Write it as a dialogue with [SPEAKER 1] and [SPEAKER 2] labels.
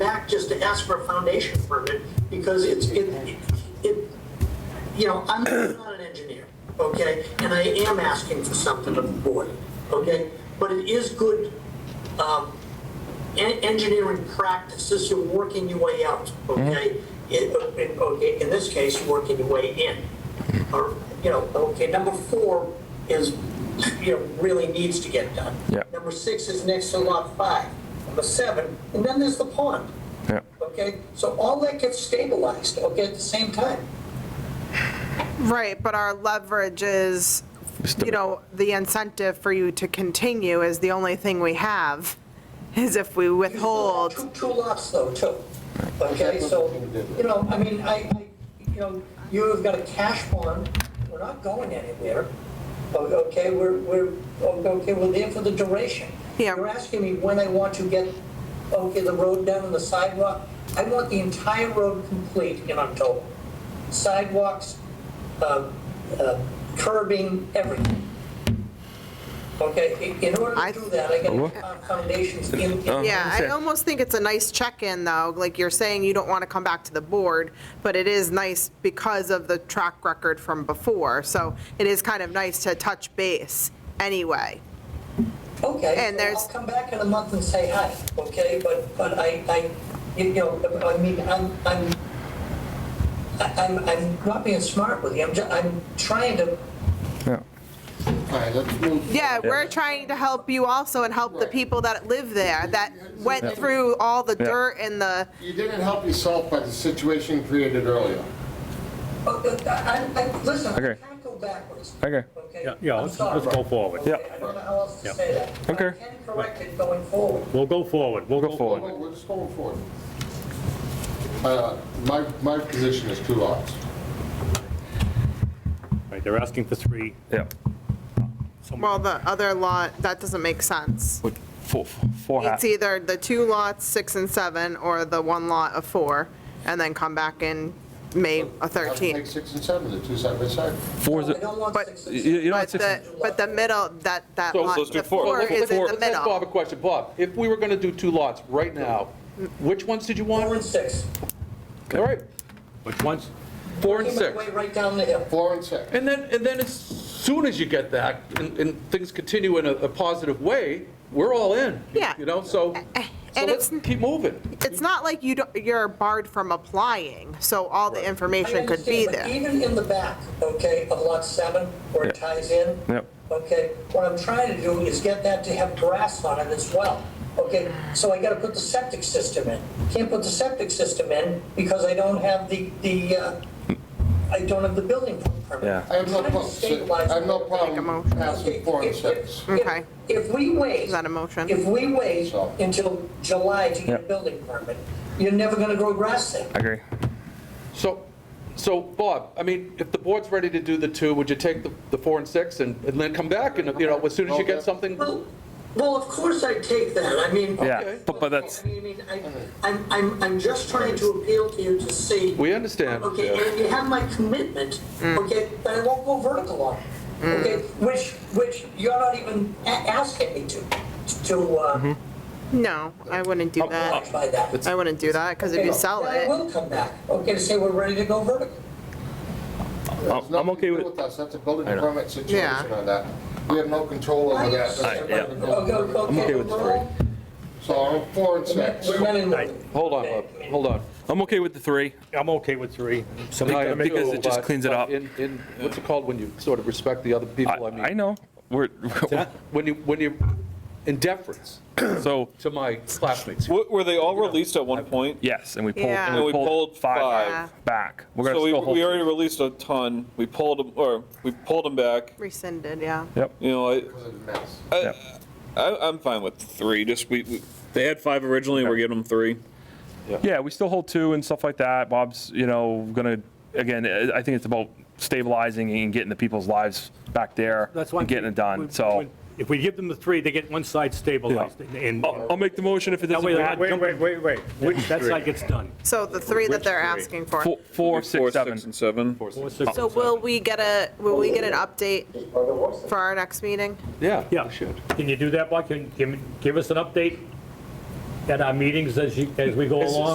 [SPEAKER 1] back just to ask for a foundation permit, because it's, it, it, you know, I'm not an engineer, okay? And I am asking for something of the board, okay? But it is good, um, en- engineering practice, this is working your way out, okay? It, it- okay, in this case, working your way in, or, you know, okay, number four is, you know, really needs to get done.
[SPEAKER 2] Yeah.
[SPEAKER 1] Number six is next to lot five, number seven, and then there's the pond,
[SPEAKER 2] Yeah.
[SPEAKER 1] okay? So all that gets stabilized, okay, at the same time.
[SPEAKER 3] Right, but our leverage is,
[SPEAKER 2] Just a-
[SPEAKER 3] you know, the incentive for you to continue is the only thing we have, is if we withhold.
[SPEAKER 1] Two, two lots though, too. Okay, so, you know, I mean, I, I, you know, you've got a cash bond, we're not going anywhere. O- Okay, we're, we're, okay, we're there for the duration.
[SPEAKER 3] Yeah.
[SPEAKER 1] You're asking me when I want to get, okay, the road down and the sidewalk. I want the entire road complete in October. Sidewalks, uh, uh, curbing, everything. Okay, in- in order
[SPEAKER 3] I-
[SPEAKER 1] to do that, I gotta get our foundations in. in-
[SPEAKER 3] Yeah, I
[SPEAKER 2] Understand.
[SPEAKER 3] almost think it's a nice check-in, though, like you're saying you don't want to come back to the board, but it is nice because of the track record from before, so it is kind of nice to touch base anyway.
[SPEAKER 1] Okay,
[SPEAKER 3] And
[SPEAKER 1] so
[SPEAKER 3] there's-
[SPEAKER 1] I'll come back in a month and say hi, okay? But, but I, I, you know, I mean, I'm, I'm, I- I'm, I'm not being smart with you, I'm, ju- I'm trying to,
[SPEAKER 2] Yeah.
[SPEAKER 4] All right, let's move.
[SPEAKER 3] Yeah, we're trying to help you also and help the
[SPEAKER 4] Right.
[SPEAKER 3] people that live there, that
[SPEAKER 4] Yeah.
[SPEAKER 3] went through all the
[SPEAKER 2] Yeah.
[SPEAKER 3] dirt and the,
[SPEAKER 4] You didn't help yourself by the situation created earlier.
[SPEAKER 1] oh, uh, I, I, listen, I
[SPEAKER 2] Okay.
[SPEAKER 1] can't go backwards.
[SPEAKER 2] Okay.
[SPEAKER 1] okay?
[SPEAKER 5] Yeah, yeah,
[SPEAKER 1] I'm
[SPEAKER 5] let's-
[SPEAKER 1] sorry.
[SPEAKER 5] let's go forward.
[SPEAKER 2] Yeah.
[SPEAKER 1] Okay, I don't know how else to say that. but
[SPEAKER 2] Okay.
[SPEAKER 1] I can correct it going forward.
[SPEAKER 5] We'll go forward, we'll
[SPEAKER 2] Go
[SPEAKER 5] go
[SPEAKER 2] forward.
[SPEAKER 5] forward.
[SPEAKER 4] Well, We're just going forward. Uh, My, my position is two lots.
[SPEAKER 5] Right, they're asking for three.
[SPEAKER 2] Yeah.
[SPEAKER 3] well, the other lot, that doesn't make sense.
[SPEAKER 2] With four, four
[SPEAKER 3] It's
[SPEAKER 2] hats.
[SPEAKER 3] either the two lots, six and seven, or the one lot of four, and then come back in May of
[SPEAKER 4] Have to Make
[SPEAKER 3] 13.
[SPEAKER 4] six and seven, they're two side by side.
[SPEAKER 2] Four is
[SPEAKER 1] I don't want
[SPEAKER 3] But-
[SPEAKER 1] six.
[SPEAKER 2] You, you know,
[SPEAKER 3] But
[SPEAKER 2] it's,
[SPEAKER 3] the, but the middle, that, that
[SPEAKER 6] So let's
[SPEAKER 3] lot,
[SPEAKER 6] do
[SPEAKER 3] the
[SPEAKER 6] four.
[SPEAKER 3] four
[SPEAKER 6] Let's-
[SPEAKER 3] is
[SPEAKER 6] let's-
[SPEAKER 3] in the
[SPEAKER 6] Let's ask Bob a
[SPEAKER 3] middle.
[SPEAKER 6] question. Bob, if we were going to do two lots right now, which ones did you
[SPEAKER 1] Four
[SPEAKER 6] want?
[SPEAKER 1] and six.
[SPEAKER 6] All right,
[SPEAKER 5] Which ones?
[SPEAKER 6] four and
[SPEAKER 1] Working my
[SPEAKER 6] six.
[SPEAKER 1] Way right down the hill.
[SPEAKER 4] Four and six.
[SPEAKER 6] And then, and then as soon as you get that, and, and things continue in a, a positive way, we're all in.
[SPEAKER 3] Yeah.
[SPEAKER 6] You know, so, so
[SPEAKER 3] and
[SPEAKER 6] let's
[SPEAKER 3] it's-
[SPEAKER 6] keep moving.
[SPEAKER 3] It's not like you don't, you're barred from applying, so all the information could be
[SPEAKER 1] I
[SPEAKER 3] there.
[SPEAKER 1] understand, but even in the back, okay, of lot seven, where it
[SPEAKER 2] Yeah.
[SPEAKER 1] ties in.
[SPEAKER 2] Yep.
[SPEAKER 1] Okay, what I'm trying to do is get that to have grass on it as well. Okay, so I gotta put the septic system in. Can't put the septic system in because I don't have the, the, uh, I don't have the building permit.
[SPEAKER 2] Yeah.
[SPEAKER 4] I have no
[SPEAKER 1] I'm trying to
[SPEAKER 4] problem,
[SPEAKER 1] stabilize
[SPEAKER 4] I have no
[SPEAKER 1] it.
[SPEAKER 3] a
[SPEAKER 4] problem
[SPEAKER 3] motion.
[SPEAKER 4] passing four and
[SPEAKER 1] If- if-
[SPEAKER 4] six.
[SPEAKER 1] if-
[SPEAKER 3] Okay.
[SPEAKER 1] If we wait.
[SPEAKER 3] Is that a motion?
[SPEAKER 1] If we wait
[SPEAKER 4] So.
[SPEAKER 1] until July to get a
[SPEAKER 2] Yep.
[SPEAKER 1] building permit, you're never gonna grow grass there.
[SPEAKER 2] I agree.
[SPEAKER 6] So, so Bob, I mean, if the board's ready to do the two, would you take the, the four and six and, and then come back and, you know, as soon as you get something?
[SPEAKER 1] Well, well, of course I take that, I mean.
[SPEAKER 2] Yeah, but- but that's-
[SPEAKER 1] I mean, I, I'm, I'm, I'm just trying to appeal to you to see.
[SPEAKER 6] We understand.
[SPEAKER 1] Okay, and you have my commitment,
[SPEAKER 2] Mm.
[SPEAKER 1] okay, but I won't go vertical on it, okay, which, which you're not even a- asking me to, to, uh,
[SPEAKER 2] Mm-hmm.
[SPEAKER 3] No, I wouldn't do that.
[SPEAKER 1] by that.
[SPEAKER 3] I wouldn't do that, because if you sell
[SPEAKER 1] Then I
[SPEAKER 3] it,
[SPEAKER 1] will come back, okay, to say we're ready to go vertical.
[SPEAKER 4] There's
[SPEAKER 2] I'm
[SPEAKER 4] nothing to
[SPEAKER 2] okay
[SPEAKER 4] do
[SPEAKER 2] with it.
[SPEAKER 4] us. That's a building
[SPEAKER 2] know.
[SPEAKER 4] permit situation
[SPEAKER 3] Yeah.
[SPEAKER 4] on that. We have no control over that.
[SPEAKER 1] All right,
[SPEAKER 2] yeah.
[SPEAKER 1] Okay, okay,
[SPEAKER 2] okay with the
[SPEAKER 1] we're all-
[SPEAKER 4] So I'm four and six.
[SPEAKER 1] We're men and women.
[SPEAKER 6] Hold on, Bob, hold on.
[SPEAKER 2] I'm okay with the three.
[SPEAKER 5] I'm okay with three.
[SPEAKER 6] I am
[SPEAKER 2] because
[SPEAKER 6] too,
[SPEAKER 2] it just
[SPEAKER 6] but-
[SPEAKER 2] cleans it
[SPEAKER 6] but
[SPEAKER 2] up.
[SPEAKER 6] In, in, what's it called when you sort of respect the other
[SPEAKER 2] I,
[SPEAKER 6] people, I
[SPEAKER 2] I
[SPEAKER 6] mean?
[SPEAKER 2] know. We're,
[SPEAKER 6] When you, when you, in deference
[SPEAKER 2] so,
[SPEAKER 6] to my classmates.
[SPEAKER 7] Were were they all released at one point?
[SPEAKER 2] yes, and we pulled,
[SPEAKER 3] Yeah.
[SPEAKER 7] And we pulled
[SPEAKER 3] Yeah.
[SPEAKER 7] five.
[SPEAKER 2] back. We're going to
[SPEAKER 7] So we,
[SPEAKER 2] still hold.
[SPEAKER 7] we already released a ton. We pulled them, or we pulled them back.
[SPEAKER 3] rescinded, yeah.
[SPEAKER 2] Yep.
[SPEAKER 7] You know, I,
[SPEAKER 4] It's a mess.
[SPEAKER 7] Uh,
[SPEAKER 2] yep.
[SPEAKER 7] I, I'm fine with three. Just we, we they had five originally. We're giving them three.
[SPEAKER 2] Yeah, we still hold two and stuff like that. Bob's, you know, gonna, again, I I think it's about stabilizing and getting the people's lives back there
[SPEAKER 5] That's why.
[SPEAKER 2] and getting it done, so.
[SPEAKER 5] If we give them the three, they get one side stabilized and.
[SPEAKER 2] I'll I'll make the motion if it
[SPEAKER 5] That
[SPEAKER 2] doesn't
[SPEAKER 5] way they're not
[SPEAKER 2] pass.
[SPEAKER 8] Wait,
[SPEAKER 5] jumping.
[SPEAKER 8] wait, wait, wait. Which
[SPEAKER 5] That
[SPEAKER 8] three?
[SPEAKER 5] side gets done.
[SPEAKER 3] So the three that they're
[SPEAKER 7] Which
[SPEAKER 3] asking for.
[SPEAKER 2] Four, four, six,
[SPEAKER 7] six,
[SPEAKER 2] seven.
[SPEAKER 7] and seven.
[SPEAKER 5] Four, six,
[SPEAKER 3] So will we get a, will we get an update for our next meeting?
[SPEAKER 6] Yeah,
[SPEAKER 5] Yeah.
[SPEAKER 6] we should.
[SPEAKER 5] Can you do that, Bob? Can, can you give us an update at our meetings as you, as we go along.